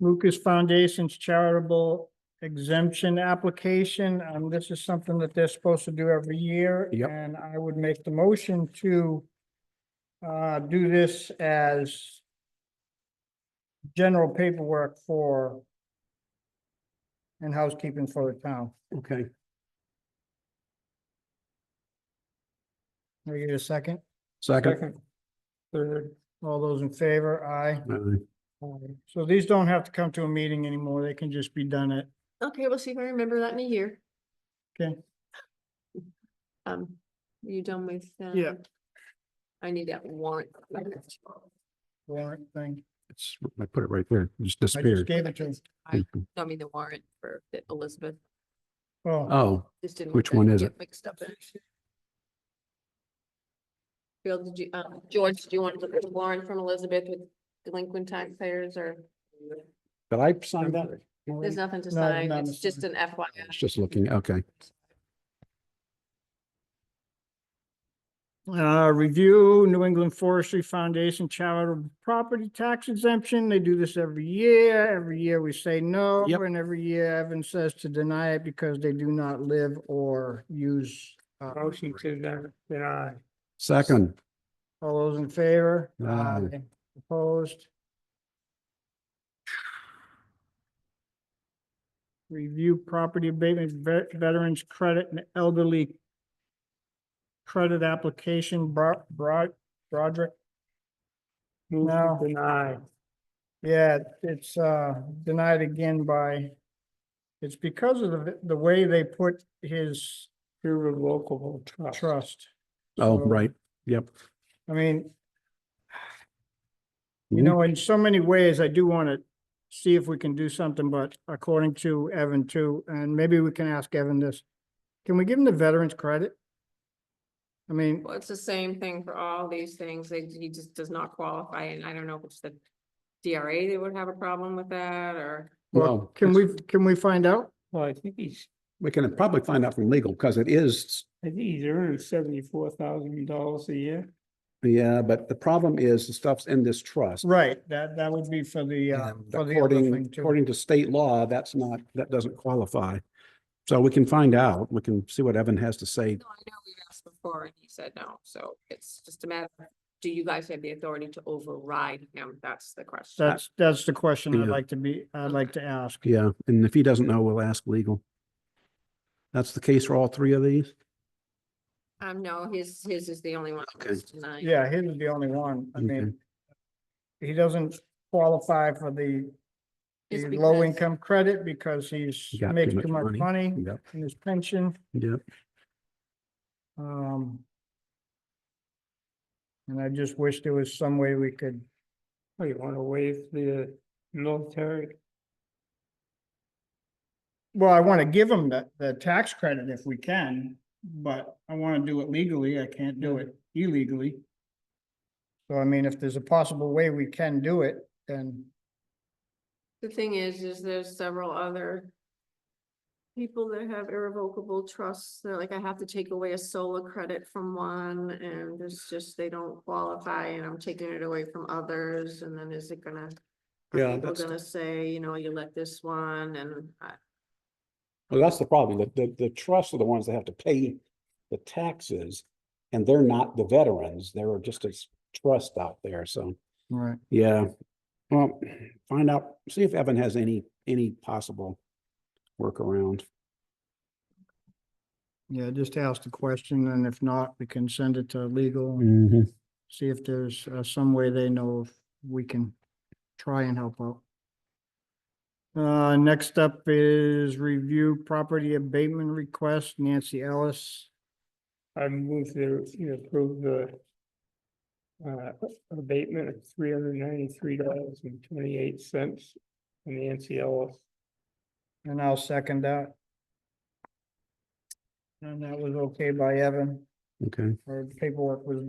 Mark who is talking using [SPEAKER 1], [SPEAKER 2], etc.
[SPEAKER 1] Lucas Foundation's charitable exemption application. Um, this is something that they're supposed to do every year.
[SPEAKER 2] Yep.
[SPEAKER 1] And I would make the motion to uh, do this as general paperwork for and housekeeping for the town.
[SPEAKER 2] Okay,
[SPEAKER 1] Can I get a second?
[SPEAKER 2] second.
[SPEAKER 1] Third. All those in favor, aye.
[SPEAKER 2] Aye.
[SPEAKER 1] So these don't have to come to a meeting anymore. They can just be done at,
[SPEAKER 3] Okay, we'll see if I remember that in a year.
[SPEAKER 1] Okay.
[SPEAKER 3] Um, are you done with?
[SPEAKER 1] Yeah.
[SPEAKER 3] um, I need that warrant.
[SPEAKER 1] warrant thing.
[SPEAKER 2] It's, I put it right there, it just
[SPEAKER 1] I just
[SPEAKER 2] disappeared.
[SPEAKER 1] gave it to, him.
[SPEAKER 3] I- I mean, the warrant for that Elizabeth
[SPEAKER 1] oh,
[SPEAKER 2] Oh,
[SPEAKER 3] just didn't. want
[SPEAKER 2] Which
[SPEAKER 3] that
[SPEAKER 2] one
[SPEAKER 3] to
[SPEAKER 2] is
[SPEAKER 3] get
[SPEAKER 2] it?
[SPEAKER 3] Mixed up. in it. Bill, did you, um, George, do you want to look at the warrant from Elizabeth with delinquent taxpayers or?
[SPEAKER 2] did I sign that?
[SPEAKER 3] There's nothing to
[SPEAKER 1] No, there's
[SPEAKER 3] sign.
[SPEAKER 1] nothing
[SPEAKER 3] It's
[SPEAKER 1] to
[SPEAKER 3] just
[SPEAKER 1] sign.
[SPEAKER 3] an FYI.
[SPEAKER 2] It's just looking, okay.
[SPEAKER 1] uh, review New England Forestry Foundation charitable property tax exemption. They do this every year. Every year we say no.
[SPEAKER 2] Yep.
[SPEAKER 1] And every year Evan says to deny it because they do not live or use. uh,
[SPEAKER 4] Motion to den- deny.
[SPEAKER 2] Second,
[SPEAKER 1] All those in favor?
[SPEAKER 2] Aye.
[SPEAKER 1] Opposed? Review property abatement, ve- veterans credit and elderly credit application, Bro- Bro- Broderick.
[SPEAKER 4] Move
[SPEAKER 1] No.
[SPEAKER 4] to deny.
[SPEAKER 1] Yeah, it's uh denied again by, it's because of the, the way they put his
[SPEAKER 4] Irrevocable trust.
[SPEAKER 1] trust.
[SPEAKER 2] oh,
[SPEAKER 1] So,
[SPEAKER 2] right, yep.
[SPEAKER 1] I mean,
[SPEAKER 2] Mm-hmm.
[SPEAKER 1] You know, in so many ways, I do want to see if we can do something, but according to Evan too, and maybe we can ask Evan this. Can we give him the veterans credit? I mean,
[SPEAKER 3] Well, it's the same thing for all these things. They, he just does not qualify and I don't know if it's the DRA they would have a problem with that or.
[SPEAKER 1] well,
[SPEAKER 2] Well,
[SPEAKER 1] can we, can we find out?
[SPEAKER 4] Well, I think he's,
[SPEAKER 2] we can probably find out from legal, because it is,
[SPEAKER 4] I think he's earning seventy-four thousand dollars a year.
[SPEAKER 2] yeah, but the problem is the stuff's in this trust.
[SPEAKER 1] Right, that, that would be for the, uh,
[SPEAKER 2] And
[SPEAKER 1] for the other
[SPEAKER 2] According,
[SPEAKER 1] thing too.
[SPEAKER 2] according to state law, that's not, that doesn't qualify. So we can find out, we can see what Evan has to say.
[SPEAKER 3] No, I know we've asked before and he said no, so it's just a matter, of do you guys have the authority to override him? That's the question.
[SPEAKER 1] That's, that's the question I'd
[SPEAKER 2] Yeah.
[SPEAKER 1] like to be, I'd like to ask.
[SPEAKER 2] Yeah, and if he doesn't know, we'll ask legal. That's the case for all three of these?
[SPEAKER 3] Um, no, his, his is the only one
[SPEAKER 2] Okay.
[SPEAKER 3] that's denied.
[SPEAKER 1] Yeah, he was the only one. I
[SPEAKER 2] Okay.
[SPEAKER 1] mean,
[SPEAKER 2] Mm-hmm.
[SPEAKER 1] he doesn't qualify for the,
[SPEAKER 3] It's
[SPEAKER 1] the
[SPEAKER 3] because-
[SPEAKER 1] low income credit because he's
[SPEAKER 2] He got too
[SPEAKER 1] makes
[SPEAKER 2] much
[SPEAKER 1] too much
[SPEAKER 2] money.
[SPEAKER 1] money
[SPEAKER 2] Yep,
[SPEAKER 1] in his pension.
[SPEAKER 2] yep.
[SPEAKER 1] Um. And I just wish there was some way we could,
[SPEAKER 4] Oh, you want to waive the military?
[SPEAKER 1] well, I want to give them the, the tax credit if we can, but I want to do it legally. I can't do it illegally. So I mean, if there's a possible way we can do it, then,
[SPEAKER 3] The thing is, is there's several other people that have irrevocable trusts. They're like, I have to take away a solar credit from one and it's just, they don't qualify and I'm taking it away from others. And then is it gonna?
[SPEAKER 2] Yeah,
[SPEAKER 3] Are people
[SPEAKER 2] that's-
[SPEAKER 3] gonna say, you know, you let this one and I,
[SPEAKER 2] Well, that's the problem. The, the, the trusts are the ones that have to pay the taxes. And they're not the veterans. They're just a s- trust out there, so,
[SPEAKER 1] right,
[SPEAKER 2] yeah. Well, find out, see if Evan has any, any possible workaround.
[SPEAKER 1] yeah, just ask the question and if not, we can send it to legal and
[SPEAKER 2] Mm-hmm.
[SPEAKER 1] see if there's uh, some way they know if we can try and help out. Uh, next up is review property abatement request, Nancy Ellis.
[SPEAKER 4] I move to you know, approve the uh, abatement of three hundred ninety-three dollars and twenty-eight cents in the NCLS.
[SPEAKER 1] And I'll second that. And that was okay by Evan,
[SPEAKER 2] Okay.
[SPEAKER 1] or paperwork was